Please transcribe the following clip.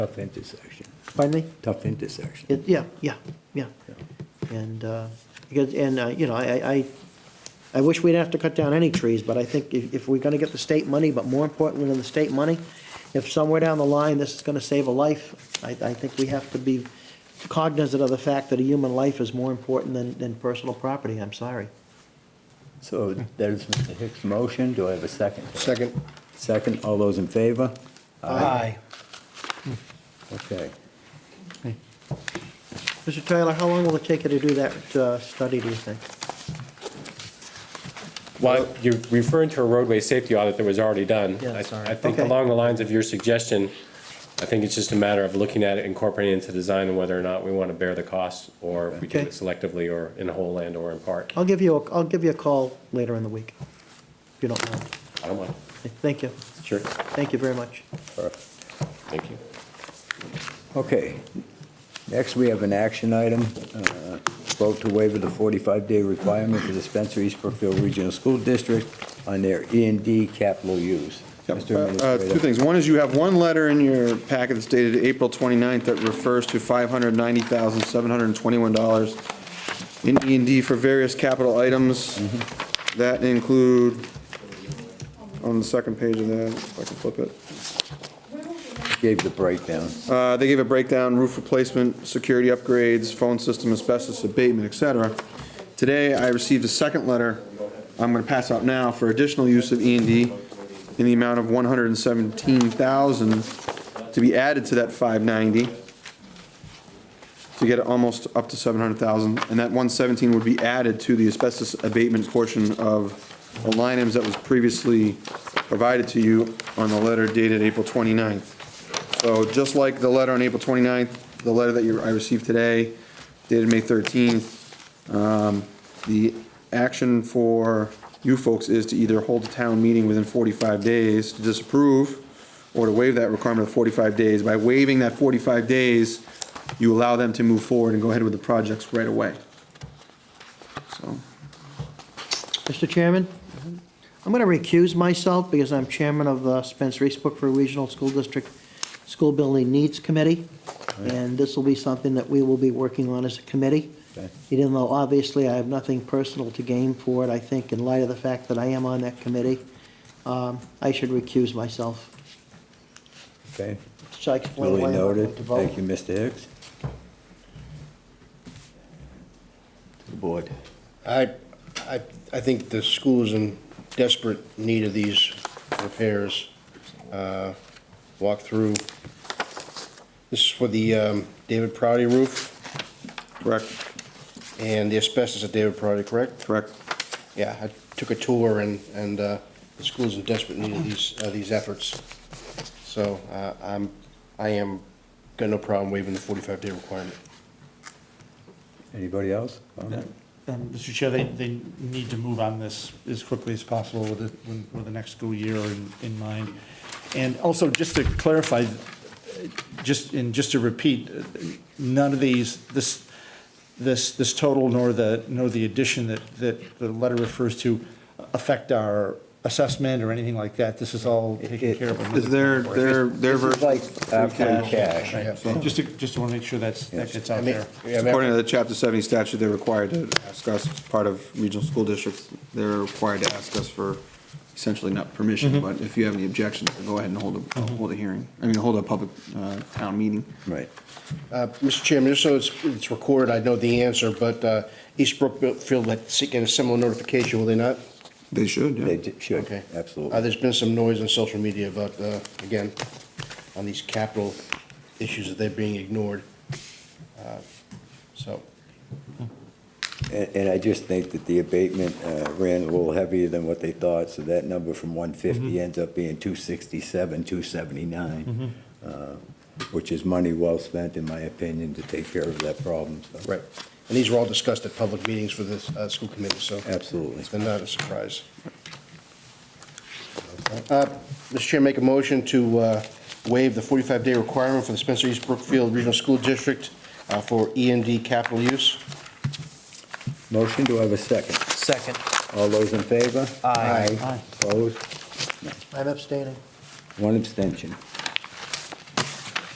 Tough intersection. Finally? Tough intersection. It, yeah, yeah, yeah. And, uh, because, and, uh, you know, I, I, I wish we'd have to cut down any trees, but I think if, if we're gonna get the state money, but more importantly than the state money, if somewhere down the line this is gonna save a life, I, I think we have to be cognizant of the fact that a human life is more important than, than personal property, I'm sorry. So there's Mr. Hicks' motion. Do I have a second? Second. Second, all those in favor? Okay. Mr. Taylor, how long will it take you to do that, uh, study, do you think? Well, you're referring to a roadway safety audit that was already done. Yeah, that's I- all right. I think Okay. along the lines of your suggestion, I think it's just a matter of looking at it, incorporating it into design, and whether or not we want to bear the cost, or if we do Okay. it selectively, or in whole land, or in part. I'll give you, a- I'll give you a call later in the week, if you don't mind. I don't mind. Thank you, Sure. thank you very much. Thank you. Okay. Next, we have an action item. uh, Vote to waiver the 45-day requirement for dispensaries Brookfield Regional School District on their E and D capital use. Mr. Uh, Administrator. Two things. One is you have one letter in your packet that's dated April 29th that refers to $590,721 in E and D for various capital items that include, on the second page of that, if I can flip it. Gave the breakdown. Uh, They gave a breakdown, roof replacement, security upgrades, phone system, asbestos abatement, et cetera. Today, I received a second letter I'm going to pass out now for additional use of E and D in the amount of 117,000 to be added to that 590, to get it almost up to 700,000. And that 117 would be added to the asbestos abatement portion of the line items that was previously provided to you on the letter dated April 29th. So just like the letter on April 29th, the letter that you, I received today dated May 13th, um, the action for you folks is to either hold a town meeting within 45 days to disapprove or to waive that requirement of 45 days. By waiving that 45 days, you allow them to move forward and go ahead with the projects right away. So, Mr. Chairman, I'm going to recuse myself because I'm chairman of uh, the Spencer Eastbrook Regional School District School Building Needs Committee, Oh, and this will be something that we will be working on as a committee. Okay. Even though obviously I have nothing personal to gain for it, I think in light of the fact that I am on that committee, um, I should recuse myself. Okay. Should I explain why Duly I'm not going noted. to vote? Thank you, Mr. Hicks. To the board. I, I, I think the school is in desperate need of these repairs. Uh, Walk through, this is for the um, David Proudy roof correct, and the asbestos at David Proudy, correct? correct. Yeah, I took a tour and, and uh, the school's in desperate need of these, uh, these efforts. So uh, I'm, I am, got no problem waiving the 45-day requirement. Anybody else? Comment? Um, Mr. Chair, they, they need to move on this as quickly as possible with, it- when- with the next school year in, in mind. And also, just to clarify, just, and just to repeat, none of these, this, this, this total nor the, nor the addition that, that the letter refers to affect our assessment or anything like that. This is all taken care of. Is there, their, their This is version, like our free cash. Right, just to, just to want to make sure that's, that gets I out mean, there. yeah, I mean, according to the chapter seventy statute, they're required to ask us, as part of regional school districts, they're required to ask us for essentially not permission, but if you have any objections, then go ahead and hold a, hold a hearing, I mean, hold a public, uh, town meeting. Right. Uh, Mr. Chairman, just so it's, it's recorded, I know the answer, but uh, East Brookfield had seeking a similar notification, will they not? They should, They yeah. d- should, Okay. Uh, absolutely. There's been some noise on social media about, uh, again, on these capital issues that they're being ignored. Uh, So, And and I just think that the abatement uh, ran a little heavier than what they thought, so that number from 150 ends up being 267, 279, uh, which is money well spent, in my opinion, to take care of that problem, so. right. And these were all discussed at public meetings for this uh, school committee, so. Absolutely. It's not a surprise. Uh, Mr. Chair, make a motion to uh, waive the 45-day requirement for the Spencer East Brookfield Regional School District uh, for E and D capital use. Motion, do I have a second? Second. All those in favor? Aye. Opposed? I'm abstaining. One abstention.